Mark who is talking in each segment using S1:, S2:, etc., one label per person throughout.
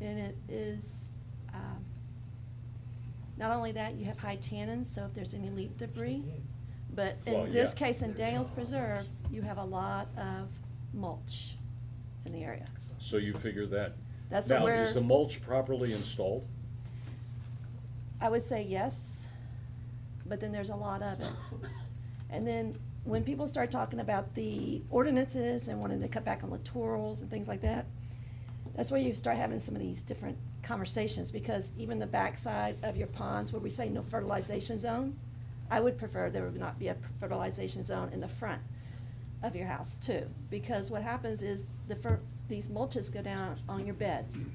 S1: And it is, um, not only that, you have high tannins, so if there's any leaf debris. But
S2: Well,
S1: in this
S2: yeah.
S1: case, in Daniels Preserve, you have a lot of mulch in the area.
S2: So you figure that.
S1: That's
S2: Now,
S1: where-
S2: is the mulch properly installed?
S1: I would say yes, but then there's a lot of it. And then when people start talking about the ordinances and wanting to cut back on littorals and things like that, that's where you start having some of these different conversations, because even the backside of your ponds where we say no fertilization zone, I would prefer there would not be a fertilization zone in the front of your house too, because what happens is the fer, these mulches go down on your beds.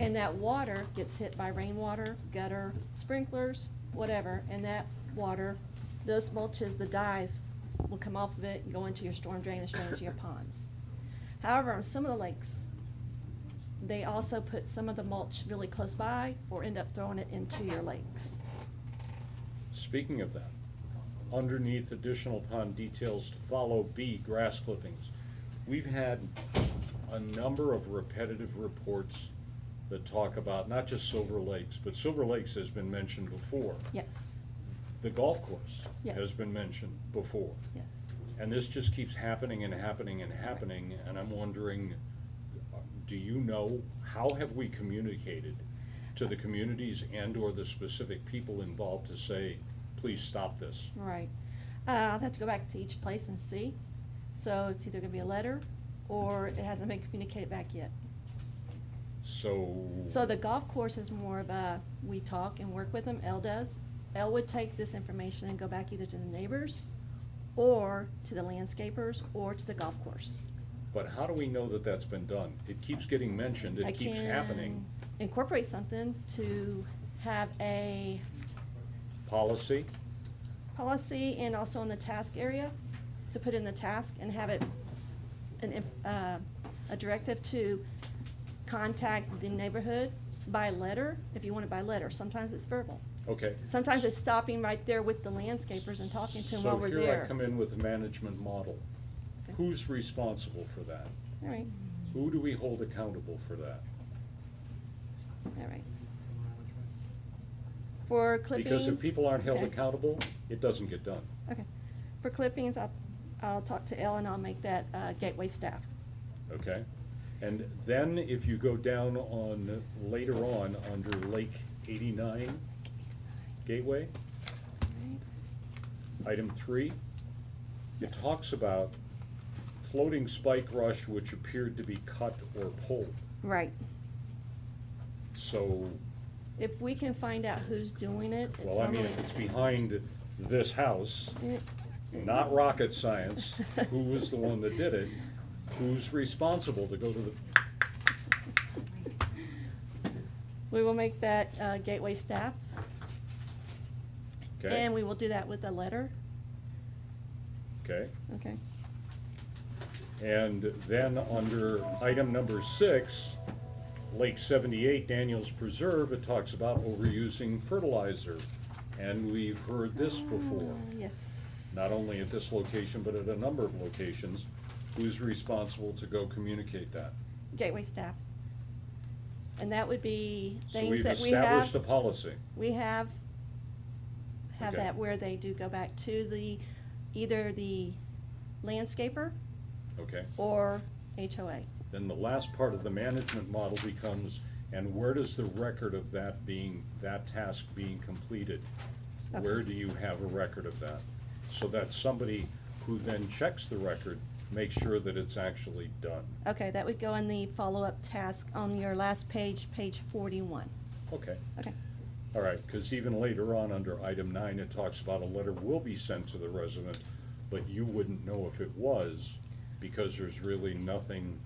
S1: And that water gets hit by rainwater, gutter, sprinklers, whatever, and that water, those mulches, the dyes, will come off of it and go into your storm drain and straight into your ponds. However, on some of the lakes, they also put some of the mulch really close by or end up throwing it into your lakes.
S2: Speaking of that, underneath additional pond details to follow, B, grass clippings. We've had a number of repetitive reports that talk about not just Silver Lakes, but Silver Lakes has been mentioned before.
S1: Yes,
S2: The golf course has
S1: Yes.
S2: been mentioned before.
S1: yes.
S2: And this just keeps happening and happening and happening, and I'm wondering, uh, do you know, how have we communicated to the communities and/or the specific people involved to say, please stop this?
S1: Right. Uh, I'll have to go back to each place and see. So it's either gonna be a letter or it hasn't been communicated back yet.
S2: So.
S1: So the golf course is more of a, we talk and work with them, L does. L would take this information and go back either to the neighbors or to the landscapers or to the golf course.
S2: But how do we know that that's been done? It keeps getting mentioned,
S1: I
S2: it keeps
S1: can
S2: happening.
S1: Incorporate something to have a
S2: Policy,
S1: policy and also in the task area, to put in the task and have it, an, inf- uh, a directive to contact the neighborhood by letter, if you want it by letter. Sometimes it's verbal.
S2: okay.
S1: Sometimes it's stopping right there with the landscapers and talking to them while we're
S2: So
S1: there.
S2: here I come in with the management model.
S1: Okay.
S2: Who's responsible for that?
S1: All right,
S2: Who do we hold accountable for that?
S1: all right. For clippings.
S2: Because if people aren't held
S1: okay.
S2: accountable, it doesn't get done.
S1: Okay. For clippings, I'll, I'll talk to Elle and I'll make that uh, gateway staff.
S2: Okay? And then if you go down on, later on, under Lake eighty-nine Gateway, item three, it
S1: Yes.
S2: talks about floating spike rush which appeared to be cut or pulled.
S1: Right.
S2: So,
S1: If we can find out who's doing it, it's
S2: well, I mean,
S1: normally.
S2: if it's behind this house,
S1: Eh,
S2: not rocket science, who was the one that did it? Who's responsible to go to the,
S1: We will make that uh, gateway staff.
S2: okay?
S1: And we will do that with a letter.
S2: Okay?
S1: Okay.
S2: And then under item number six, Lake seventy-eight, Daniels Preserve, it talks about overusing fertilizer. And we've heard this before,
S1: Uh, Yes.
S2: not only at this location, but at a number of locations. Who's responsible to go communicate that?
S1: Gateway staff. And that would be
S2: So
S1: things
S2: we've
S1: that we have.
S2: established a policy.
S1: We have, have
S2: Okay.
S1: that where they do go back to the, either the landscaper
S2: Okay.
S1: or HOA.
S2: Then the last part of the management model becomes, and where does the record of that being, that task being completed?
S1: Okay.
S2: Where do you have a record of that? So that somebody who then checks the record makes sure that it's actually done.
S1: Okay, that would go in the follow-up task on your last page, page forty-one.
S2: Okay,
S1: Okay,
S2: all right, because even later on, under item nine, it talks about a letter will be sent to the resident, but you wouldn't know if it was, because there's really nothing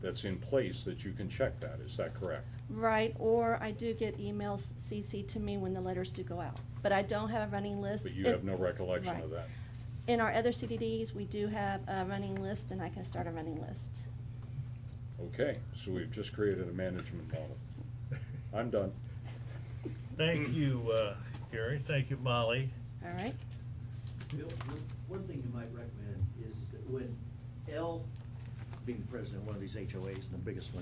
S2: that's in place that you can check that, is that correct?
S1: right, or I do get emails CC to me when the letters do go out, but I don't have a running list.
S2: But you
S1: In-
S2: have no recollection of
S1: Right.
S2: that.
S1: In our other CDDs, we do have a running list, and I can start a running list.
S2: Okay, so we've just created a management model. I'm done.
S3: Thank you, uh, Gary. Thank you, Molly.
S1: All right?
S4: Bill, one- one thing you might recommend is that when L, being the president of one of these HOAs and the biggest one